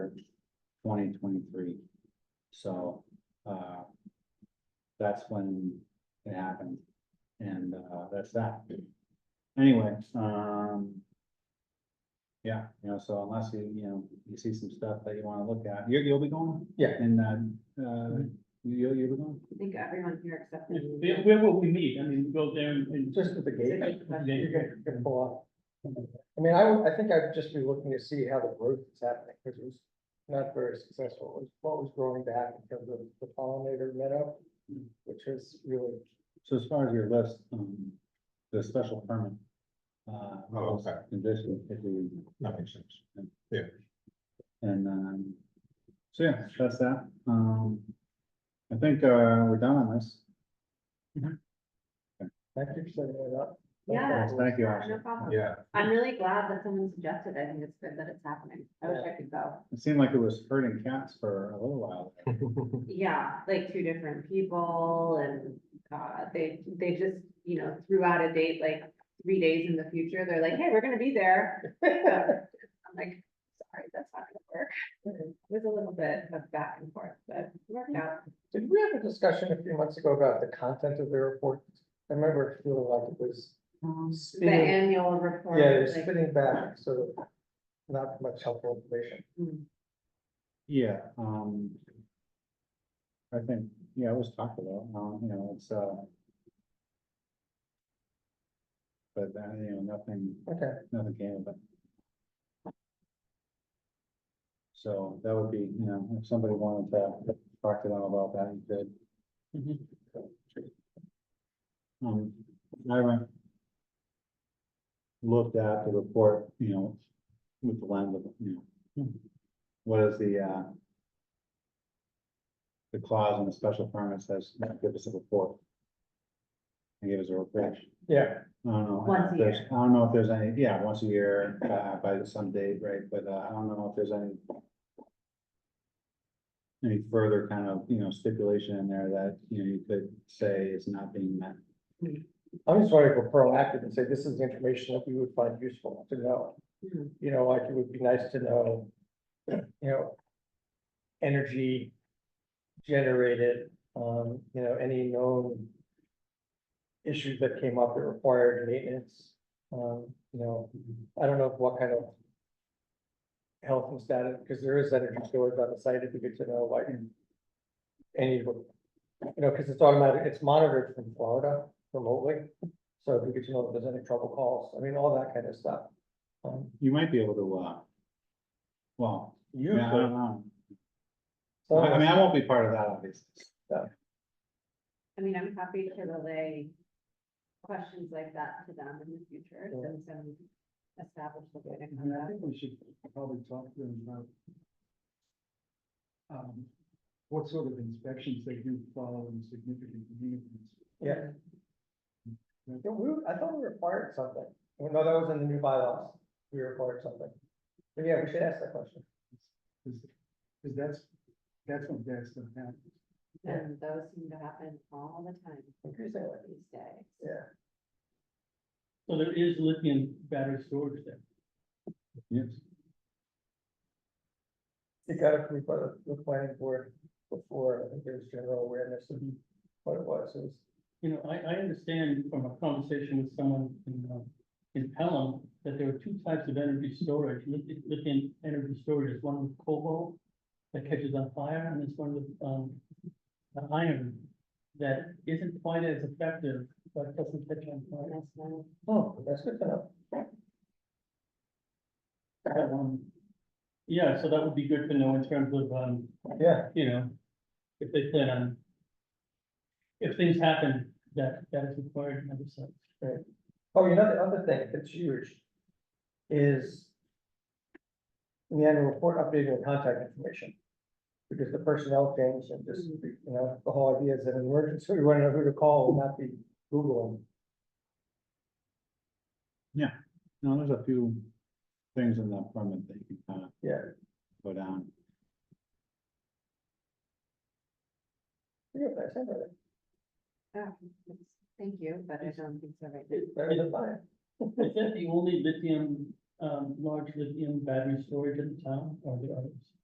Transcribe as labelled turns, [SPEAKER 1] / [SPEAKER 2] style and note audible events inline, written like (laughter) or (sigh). [SPEAKER 1] twenty twenty-three. So, uh, that's when it happened, and, uh, that's that. Anyway, um, yeah, you know, so unless you, you know, you see some stuff that you wanna look at, you, you'll be going?
[SPEAKER 2] Yeah.
[SPEAKER 1] And, uh, uh, you, you'll, you'll be going?
[SPEAKER 3] I think everyone here except. for me.
[SPEAKER 4] Where, where will we meet? I mean, go there and, and
[SPEAKER 2] Just at the gate,
[SPEAKER 4] Yeah.
[SPEAKER 2] you're gonna, you're gonna pull up. I mean, I, would- I think I'd just be looking to see how the growth is happening, because it was not very successful. It was What was growing back in terms of the pollinator meadow, which is really,
[SPEAKER 1] So as far as your list, um, the special permit. Uh,
[SPEAKER 5] Oh, okay.
[SPEAKER 1] condition, if we,
[SPEAKER 5] That makes sense.
[SPEAKER 1] and, um, so yeah, that's that, um. I think, uh, we're done on this,
[SPEAKER 2] thank you for setting that up.
[SPEAKER 3] Yeah.
[SPEAKER 1] thank you,
[SPEAKER 3] No
[SPEAKER 1] Ashley.
[SPEAKER 3] problem.
[SPEAKER 5] Yeah,
[SPEAKER 3] I'm really glad that someone suggested. I think it's good that it's happening. I wish I could go.
[SPEAKER 1] It seemed like it was hurting cats for a little while. there.
[SPEAKER 3] Yeah, like two different people and, uh, they, they just, you know, threw out a date like three days in the future. They're like, hey, we're gonna be there. I'm like, sorry, that's not gonna work. It was a little bit of back and forth, but it worked out.
[SPEAKER 2] (laughs) Did we have a discussion a few months ago about the content of the report? I remember it feeling like it was
[SPEAKER 3] The
[SPEAKER 2] spinning,
[SPEAKER 3] annual report.
[SPEAKER 2] yeah, it was
[SPEAKER 3] like-
[SPEAKER 2] spinning back, so not much helpful information.
[SPEAKER 3] Mm.
[SPEAKER 1] Yeah, um. I think, yeah, it was talked about, um, you know, it's, uh. But, uh, you know, nothing,
[SPEAKER 2] Okay,
[SPEAKER 1] nothing came of it. So that would be, you know, if somebody wanted to talk to them about that, you could. Um, I went- Looked at the report, you know, with the lens of, you know. What is the, uh. The clause in the special permit says, give us a report. And give us a report.
[SPEAKER 2] yeah,
[SPEAKER 1] I don't know.
[SPEAKER 3] Once a
[SPEAKER 1] if there's- I don't know if there's any, yeah, once a year, uh, by some date, right, but, uh, I don't know if there's any. Any further kind of, you know, stipulation in there that, you know, you could say is not being met.
[SPEAKER 2] I'm just wanting to go proactive and say this is information that we would find useful to know.
[SPEAKER 3] Mhm.
[SPEAKER 2] You know, like it would be nice to know, you know, energy generated, um, you know, any known issues that came up that required maintenance, um, you know, I don't know what kind of health and status, because there is energy storage on the site, it'd be good to know, like, any, you know, because it's automatic, it's monitored from Florida remotely. So if we get to know if there's any trouble calls, I mean, all that kind of stuff. Um,
[SPEAKER 1] You might be able to, uh. Well,
[SPEAKER 2] you,
[SPEAKER 1] yeah, I
[SPEAKER 2] could-
[SPEAKER 1] don't know.
[SPEAKER 2] some of
[SPEAKER 1] I I mean,
[SPEAKER 2] us-
[SPEAKER 1] I won't be part of that, obviously.
[SPEAKER 3] I mean, I'm happy to relay questions like that to them in the future,
[SPEAKER 2] Yeah.
[SPEAKER 3] then some establish the way to
[SPEAKER 4] I
[SPEAKER 3] conduct.
[SPEAKER 4] think we should probably talk to them about um, what sort of inspections they do follow in significant communities.
[SPEAKER 2] yeah, Yeah, we- I thought we required something. Well, No, that was in the new bylaws. We required something. But yeah, we should ask that question.
[SPEAKER 4] Because that's, that's when bad stuff happens.
[SPEAKER 2] Yeah.
[SPEAKER 3] And those seem to happen all the time
[SPEAKER 2] Increasingly,
[SPEAKER 3] these days.
[SPEAKER 2] yeah.
[SPEAKER 4] So there is lithium battery storage there.
[SPEAKER 1] Yes.
[SPEAKER 2] You gotta prove the, the planning board before, I think there's general awareness of what it was. It was
[SPEAKER 4] You know, I, I understand from a conversation with someone in, um, in Pelham, that there are two types of energy storage, Lithium- lithium energy storage is one with cobalt that catches on fire, and there's one with, um, uh, iron that isn't quite as effective, but doesn't catch on fire.
[SPEAKER 3] That's one.
[SPEAKER 2] Oh, that's good to know.
[SPEAKER 4] That one- Um, Yeah, so that would be good to know in terms of, um,
[SPEAKER 2] Yeah,
[SPEAKER 4] you know, if they plan on, if things happen, that, that is required in other sites.
[SPEAKER 2] oh, you know, the other thing that's huge is the annual report updating the contact information. Because the personnel changed and just, you know, the whole idea is that an emergency, we want to know who to call, not be Googling.
[SPEAKER 1] No, there's a few things in that permit that you can kind of.
[SPEAKER 2] Yeah.
[SPEAKER 1] Go down.
[SPEAKER 2] Yeah, that's it.
[SPEAKER 3] Yeah, it's- Thank you, but I don't think so right now.
[SPEAKER 4] Is
[SPEAKER 2] Better than mine.
[SPEAKER 4] is that the only lithium, um, large lithium battery storage in town or are there others?